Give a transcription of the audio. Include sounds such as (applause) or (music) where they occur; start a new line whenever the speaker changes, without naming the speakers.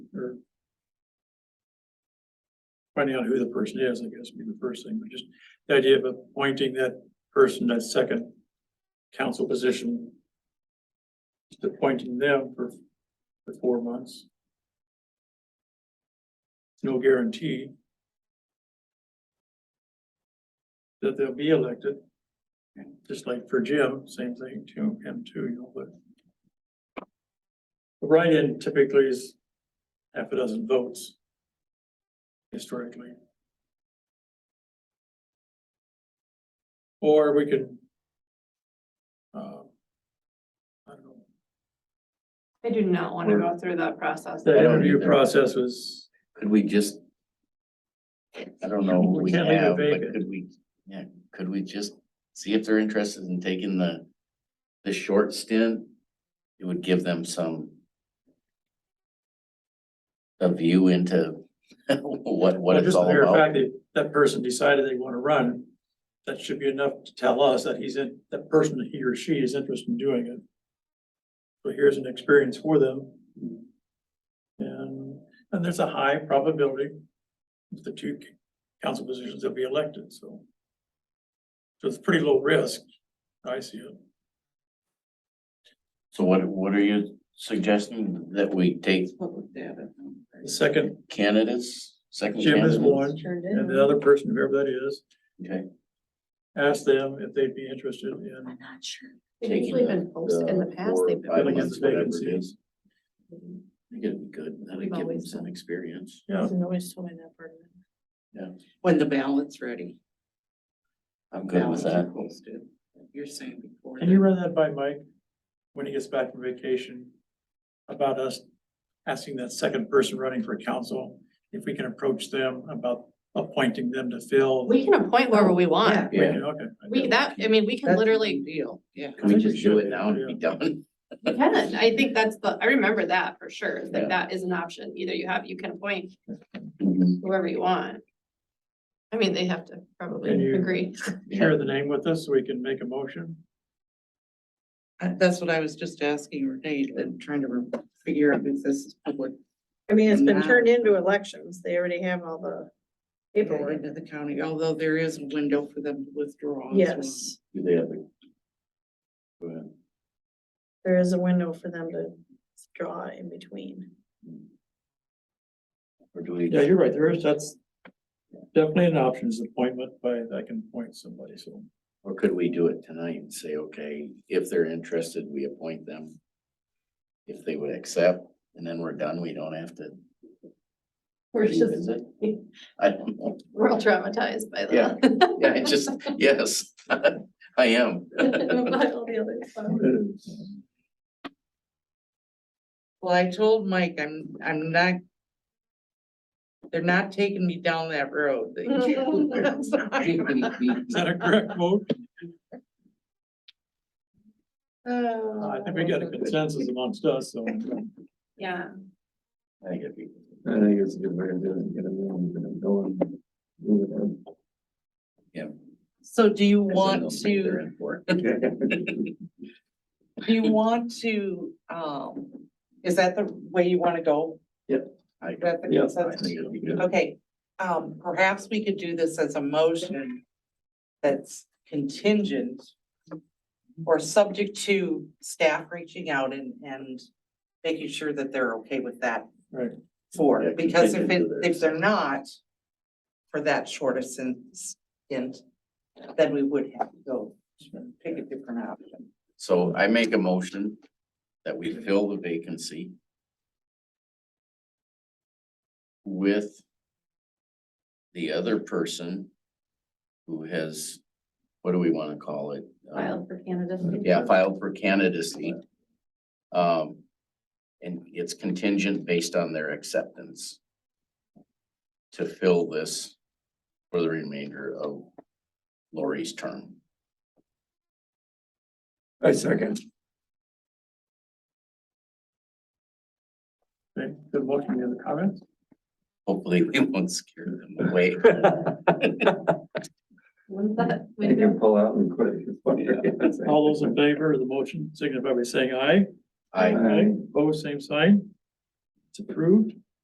finding out who the person is, I guess, would be the first thing, but just the idea of appointing that person, that second council position. Just appointing them for, for four months. No guarantee. That they'll be elected. Just like for Jim, same thing to him too, you know, but. The Write-in typically is half a dozen votes. Historically. Or we could. uh, I don't know,
I do not want to go through that process.
the
I
don't
interview
either.
process was,
Could we just? I don't know
We
what we
can't leave it
have, but
vacant.
could we, yeah, could we just see if they're interested in taking the, the short stint? It would give them some. A view into (laughs) what, what
well,
it's
just the
all
mere fact
about.
that that person decided they want to run. That should be enough to tell us that he's in, that person, he or she is interested in doing it. So here's an experience for them. And, and there's a high probability that the two council positions will be elected, so. So it's pretty low risk, I see it.
So what, what are you suggesting that we take
The second,
candidates, second
Jim
candidates?
is one, and the other person, whoever that is,
Okay,
ask them if they'd be interested in,
not sure. They've
Taking
usually been
the-
posted in the past.
four or
They've been
five
filling in
months,
the
whatever it
vacancies.
is. I think it'd be good, that'd give them some experience.
yeah.
Always told me that part.
When the ballot's ready.
I'm good with
ballots are
that.
posted. You're saying before.
Can you
the-
run that by Mike when he gets back from vacation? About us asking that second person running for council, if we can approach them about appointing them to fill.
We can appoint whoever we
Yeah.
want.
We
Yeah.
can, Okay.
We, that, I mean, we
That's
can
a
literally,
Deal, yeah.
Can we just do it now and be done?
we can. I think that's the, I remember that for sure. It's
Yeah.
Like that is an option. Either you have, you can appoint
Mm-hmm.
whoever you want. I mean, they have to
Can
probably
you-
agree.
Share the name with us so we can make a motion.
I- Uh, That's what I was just asking Renee, and trying to re- figure out if this is public.
I mean, it's been
Now-
turned into elections. They already have all the paperwork.
Into the county, although there is a window for them to withdraw. as well.
Yes,
Do they have the? Go ahead.
there is a window for them to draw in between. (laughs)
Or do we?
Yeah, you're right. There is, that's definitely an option is appointment by, I can appoint somebody, so.
Or could we do it tonight and say, okay, if they're interested, we appoint them? If they would accept, and then we're done, we don't have to
We're just,
revisit? I don't know,
we're all traumatized by
Yeah.
that.
yeah, it
(laughs)
just, yes, I am.
(laughs) By all the other stuff.
Well, I told Mike, I'm, I'm not. They're not taking me down that road.
(laughs)
(laughs)
They can't.
Is that a correct vote? Uh, I
I
think we got a consensus amongst us, so.
Yeah.
I think it'd be-
I think it's a good way to do it, get them in, get them going. move it on.
So do you
I
want
don't think
to?
they're in for it.
(laughs)
(laughs)
Do you want to, um, is that the way you wanna go?
I-
That the
Yeah, I
consensus?
think it'd be good.
Okay, um, perhaps we could do this as a motion that's contingent or subject to staff reaching out and, and making sure that they're okay with that.
Right.
For,
Yeah,
because if it,
contingent to
if they're not, for that shorter sentence, then we would have to go pick a different option.
So I make a motion that we fill the vacancy with the other person who has, what do we want to call it? Um,
Filed for candidacy.
Yeah, filed for candidacy. Um, and it's contingent based on their acceptance to fill this for the remainder of Lori's term.
I second.
Okay, good motion. Any other comments?
Hopefully, we won't scare them away.
Wouldn't that,
You
would there
can pull out and quit.
(laughs) All those in favor of the motion signify by saying aye.
I,
Aye.
Opposed, same sign. It's approved.